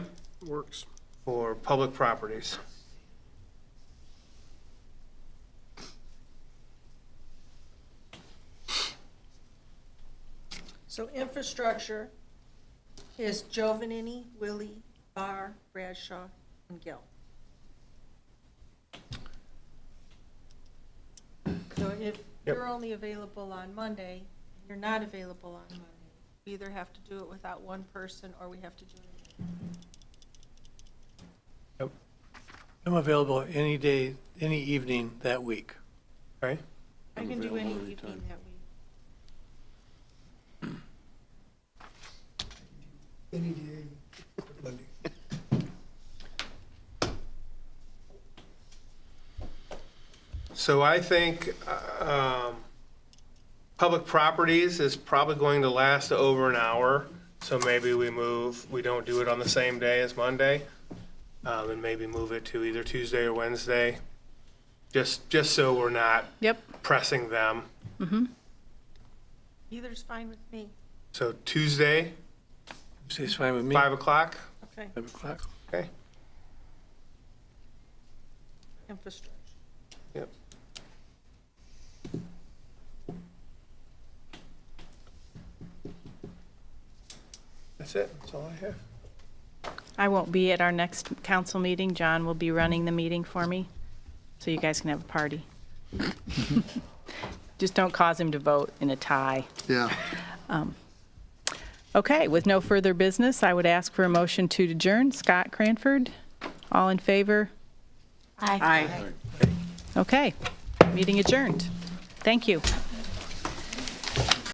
Works. for public properties. So infrastructure is Giovanini, Willie, Barr, Bradshaw, and Gill. So if Yep. you're only available on Monday, you're not available on Monday, we either have to do it without one person or we have to do it. I'm available any day, any evening that week. Okay, I I'm can do available any anytime. evening that week. Any day, Monday. so I think um, public properties is probably going to last over an hour, so maybe we move, we don't do it on the same day as Monday, um, and maybe move it to either Tuesday or Wednesday, just, just so we're not Yep. pressing them. Either's fine with me, So Tuesday, So it's fine with me. 5 o'clock, okay, Five o'clock. okay? infrastructure. Yep. That's it, that's all I have. I won't be at our next council meeting. John will be running the meeting for me, so you guys can have a party. Just don't cause him to vote in a tie. Um, Yeah. Okay, with no further business, I would ask for a motion to adjourn. Scott Cranford, all in favor? Aye. Aye. Okay, meeting adjourned. Thank you.